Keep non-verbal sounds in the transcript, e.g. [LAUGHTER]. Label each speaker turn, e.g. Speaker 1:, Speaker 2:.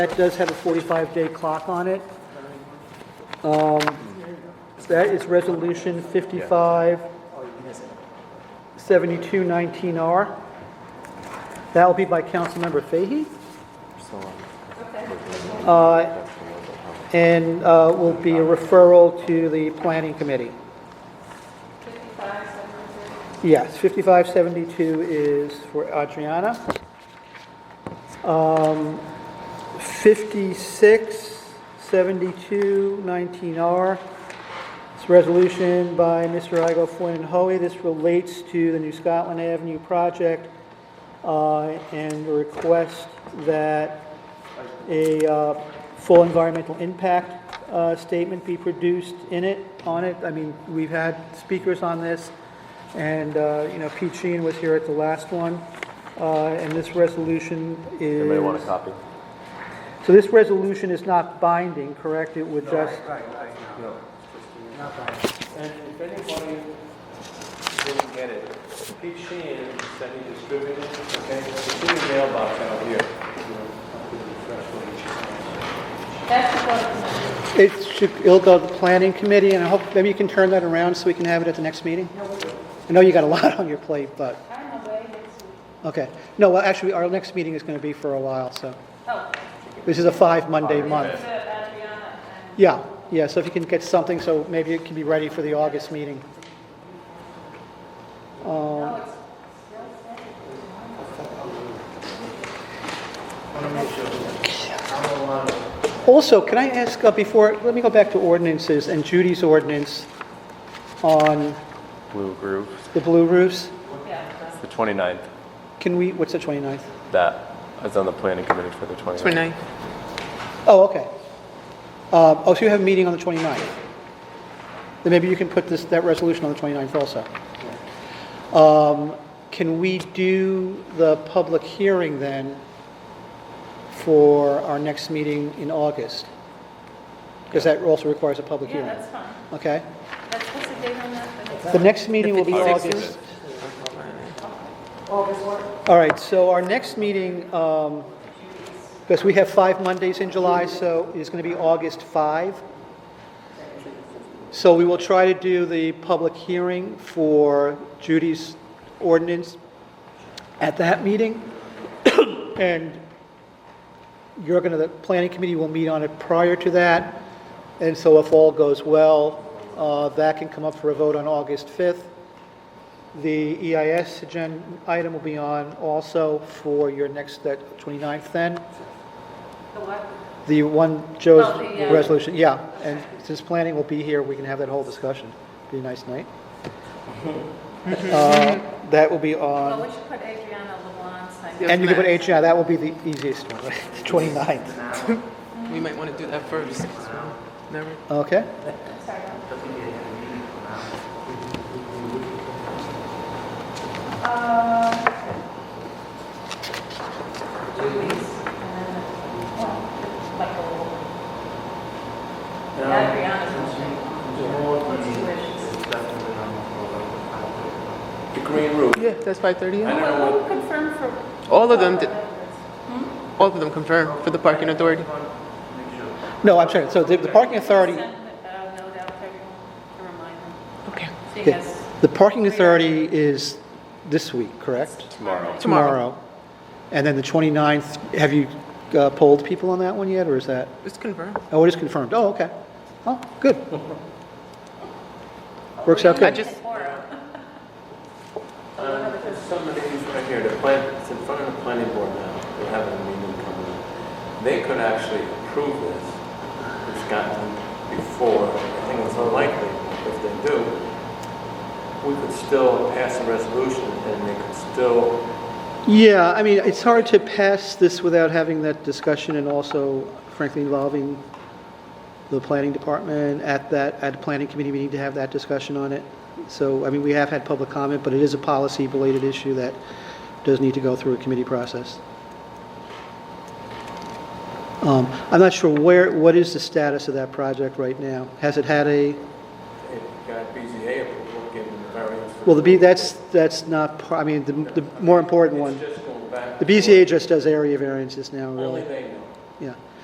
Speaker 1: That does have a 45-day clock on it. Um, That is Resolution 557219R. That will be by Councilmember Fahy. Uh, And uh, will be a referral to the Planning Committee. Yes, 5572 is for Adriana. Um, 56, 72, 19R. It's a resolution by Mr. Igo Flynn and Hoey. This relates to the New Scotland Avenue project uh, and a request that a uh, full environmental impact uh, statement be produced in it, on it. I mean, we've had speakers on this, and, uh, you know, Pete Sheehan was here at the last one, uh, and this resolution is...
Speaker 2: Anybody want a copy?
Speaker 1: So this resolution is not binding, correct? It would just,
Speaker 3: And if anybody didn't get it, Pete Sheehan said he distributed, it, okay, it's in the mailbox out here.
Speaker 4: That's what,
Speaker 1: it should, it'll go to the planning committee, and I hope, maybe you can turn that around so we can have it at the next meeting? I know you got a [LAUGHS] lot on your plate, but,
Speaker 4: I'm away next week.
Speaker 1: okay. No, well, actually, our next meeting is going to be for a while, so,
Speaker 4: Oh,
Speaker 1: this is a five Monday
Speaker 4: so
Speaker 1: month.
Speaker 4: Adriana
Speaker 1: Yeah, yeah, so if you can get something, so maybe it can be ready for the August meeting.
Speaker 4: and, oh, it's still Saturday.
Speaker 1: Also, can I ask, uh, before, let me go back to ordinances and Judy's ordinance on
Speaker 2: Blue Groove,
Speaker 1: the blue roofs.
Speaker 4: Yeah,
Speaker 2: the 29th.
Speaker 1: Can we, what's the 29th?
Speaker 2: That is on the planning committee for the 29th.
Speaker 5: 29th.
Speaker 1: Oh, okay. Uh, Oh, so you have a meeting on the 29th? Then maybe you can put this, that resolution on the 29th also. Um, Can we do the public hearing then for our next meeting in August? Because that also requires a public
Speaker 4: yeah,
Speaker 1: hearing.
Speaker 4: that's fine.
Speaker 1: Okay?
Speaker 4: That's, what's the date on that?
Speaker 1: The next meeting will be
Speaker 5: 56th.
Speaker 1: August. All right, so our next meeting, um, because we have five Mondays in July, so it's going to be August 5. So we will try to do the public hearing for Judy's ordinance at that meeting. [COUGHS] And you're going to, the planning committee will meet on it prior to that. And so if all goes well, uh, that can come up for a vote on August 5th. The EIS agenda item will be on also for your next, that 29th then.
Speaker 4: The what?
Speaker 1: The one, Joe's
Speaker 4: Oh, the, uh,
Speaker 1: resolution, yeah. And since planning will be here, we can have that whole discussion. Be a nice night. Uh, That will be
Speaker 4: Well,
Speaker 1: on,
Speaker 4: we should put Adriana Lawan's name.
Speaker 1: and you can put H, yeah, that will be the easiest one, [LAUGHS] right? 29th.
Speaker 5: We might want to do that first. Never.
Speaker 1: Okay?
Speaker 4: Sorry. Uh, Julie's, uh, like a little. Adriana's on the What's your wishes?
Speaker 3: The green room.
Speaker 5: Yeah, that's 5:30.
Speaker 3: don't know
Speaker 4: Who confirmed for?
Speaker 5: All of them did-
Speaker 4: Members.
Speaker 5: All of them confirm for the parking authority.
Speaker 1: No, I'm sorry, so the the parking authority,
Speaker 4: Send a note out to everyone to remind them.
Speaker 5: Okay.
Speaker 4: So
Speaker 1: yeah,
Speaker 4: yes.
Speaker 1: the parking authority is this week, correct?
Speaker 2: Tomorrow.
Speaker 1: Tomorrow. And then the 29th, have you uh, polled people on that one yet, or is that,
Speaker 5: It's confirmed.
Speaker 1: oh, it is confirmed, oh, okay. Oh, good. Works out
Speaker 5: I
Speaker 1: good.
Speaker 5: just,
Speaker 3: Uh, There's some of these right here, the plan, it's in front of the planning board now, they have a meeting coming up. They could actually approve this, which gotten before, I think it's unlikely, if they do, we could still pass a resolution and they could still,
Speaker 1: Yeah, I mean, it's hard to pass this without having that discussion and also frankly involving the planning department at that, at the planning committee, we need to have that discussion on it. So, I mean, we have had public comment, but it is a policy-related issue that does need to go through a committee process. Um, I'm not sure where, what is the status of that project right now? Has it had a,
Speaker 3: it got BZA approval, given the variance. for-
Speaker 1: well, the B, that's, that's not, par- I mean, the, the more important one.
Speaker 3: It's just going back.
Speaker 1: The BZA just does area variances now, really.
Speaker 3: Only they know.